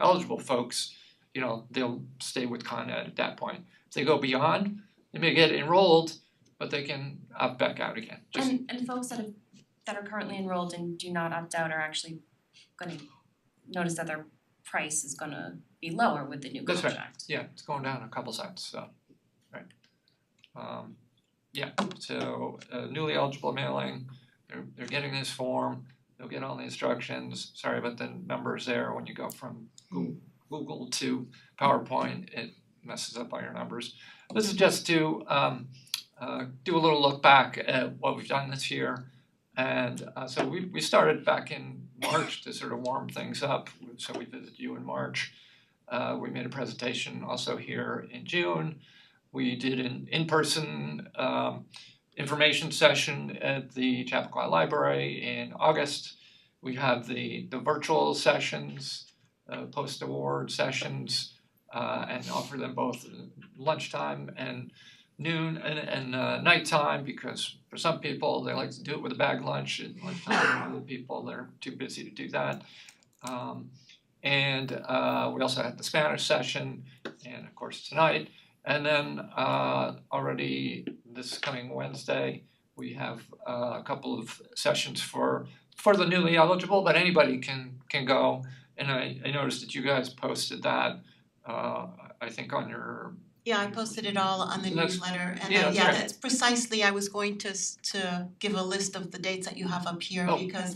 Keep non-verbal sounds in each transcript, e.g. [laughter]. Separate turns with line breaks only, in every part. eligible folks, you know, they'll stay with Con Ed at that point. If they go beyond, they may get enrolled, but they can opt back out again, just
And and folks that have that are currently enrolled and do not opt out are actually gonna notice that their price is gonna be lower with the new
That's
contract.
right. yeah, it's going down a couple cents, so, right. Um, yeah, so uh, newly eligible mailing, they're they're getting this form, they'll get all the instructions, sorry about the numbers there, when you go from Goo- Google to PowerPoint, it messes up all your numbers. This is just to um uh do a little look back at what we've done this year. And uh so we we started back in March to sort of warm things up, so we visited you in March. Uh, we made a presentation also here in June. We did an in-person um, information session at the Chappaqua Library in August. We have the the virtual sessions, uh, post-award sessions, uh, and offer them both lunchtime and noon and and uh, nighttime because for some people they like to do it with a bag lunch at lunchtime. and Other people they're too busy to do that. Um, and uh we also had the Spanish session and of course tonight. And then uh already this coming Wednesday, we have uh, a couple of sessions for for the newly eligible, but anybody can can go. And I I noticed that you guys posted that uh I think on your
Yeah, I posted it all on the
So that's-
newsletter and
yeah,
uh,
that's
yeah,
right.
that's precisely, I was going to s- to give a list of the dates that you have up here
Oh.
because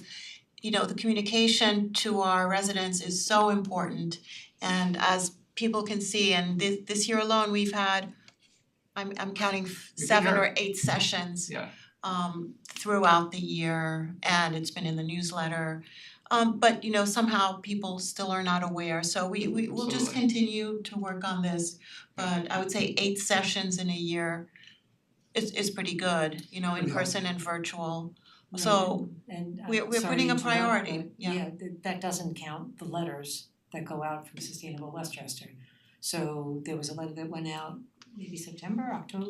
you know, the communication to our residents is so important and as people can see and this this year alone, we've had I'm I'm counting f-
You've
seven
been
or eight sessions
yeah,
um throughout the year and it's been in the newsletter. Um but you know, somehow people still are not aware, so we we will just
Absolutely.
continue to work on this. But I would say eight sessions in a year is is pretty good, you know, in
Yeah.
person and virtual.
No,
So,
and I'm
we're- we're
sorry
putting a
to interrupt,
priority,
but
yeah.
th- that doesn't count the letters that go out from Sustainable Westchester. So there was a letter that went out maybe September, October,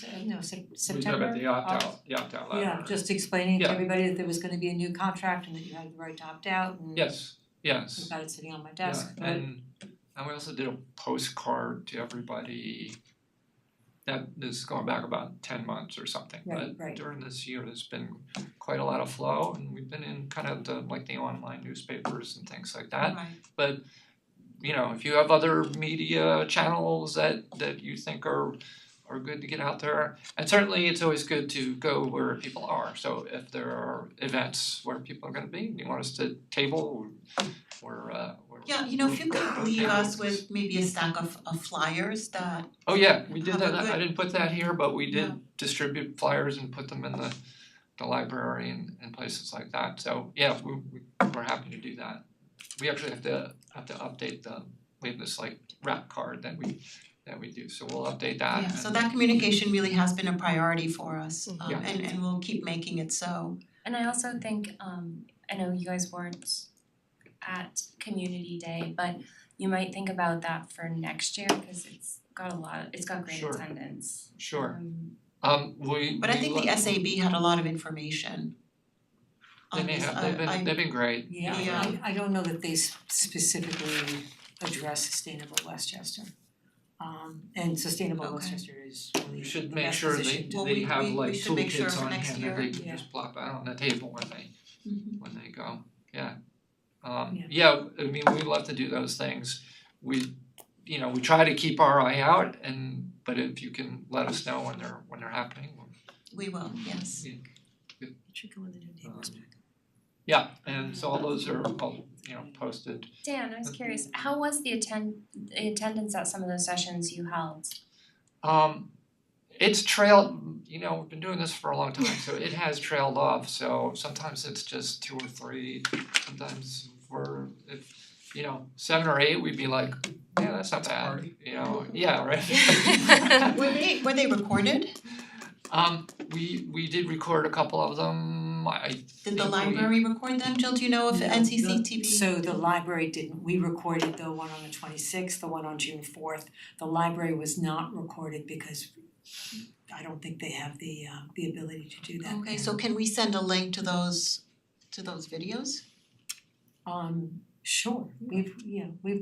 se- no, Sep-
we talked
September.
about the
Oc-
opt out, the opt out letter.
Yeah, just explaining to
Yeah.
everybody that there was gonna be a new contract and that you had the right to opt out and
Yes, yes.
I've got it sitting on my
Yeah,
desk, but
and and we also did a postcard to everybody. That is going back about ten months or something,
Right,
but
right.
during this year, there's been quite a lot of flow and we've been in kind of the like the online newspapers and things like that.
Right.
But you know, if you have other media channels that that you think are are good to get out there, and certainly it's always good to go where people are. So if there are events where people are going to be, you want us to table or uh or
Yeah, you know, if you could leave us
tables.
with maybe a stack of of flyers that
Oh yeah, we did
Have a
that, I
good-
didn't put that here, but we did
No.
distribute flyers and put them in the the library and and places like that, so yeah, we we we're happy to do that. We actually have to have to update the, we have this like wrap card that we that we do, so we'll update that
Yeah, so
and-
that communication really has been a priority for us, um
Yeah.
and and we'll keep making it so.
And I also think, um, I know you guys weren't at community day, but you might think about that for next year, cause it's got a lot, it's got great
Sure.
attendance.
Sure,
Um,
um we
But I
we
think the
look-
SAB had a lot of information
They
on
may
this, uh,
have, they've
I- I-
been, they've been great,
yeah,
Yeah.
I I don't know that they s- specifically address Sustainable Westchester. Um and Sustainable
Okay.
Westchester is really
you should
the
make
best
sure
position
they
to
Well,
they
we-
have
we- we
like
should make sure
toolkits
for
on
next
hand
year.
that they can
Yeah.
just plop out on the table when they
Mhm.
when they go, yeah. Um
Yeah.
yeah, I mean, we love to do those things. We, you know, we try to keep our eye out and but if you can let us know when they're when they're happening, we'll-
We will, yes.
It should go in the new tables
Um,
back.
yeah, and so all those are all, you know, posted.
Dan, I was curious, how was the attend, the attendance at some of those sessions you held?
Um it's trailed, you know, we've been doing this for a long time, so it has trailed off, so sometimes it's just two or three, sometimes we're if you know, seven or eight, we'd be like, yeah, that's not bad, you know, yeah, right? [laughs]
Were [laughs] they were they recorded?
Um, we we did record a couple of them, I
Did
think
the
we-
library record them? Jill, do you know if
No,
NCC
the-
TV?
So the library didn't, we recorded the one on the twenty sixth, the one on June fourth, the library was not recorded because I don't think they have the uh the ability to do that.
Okay, so can we send a link to those to those videos?
Um, sure, we've, yeah, we've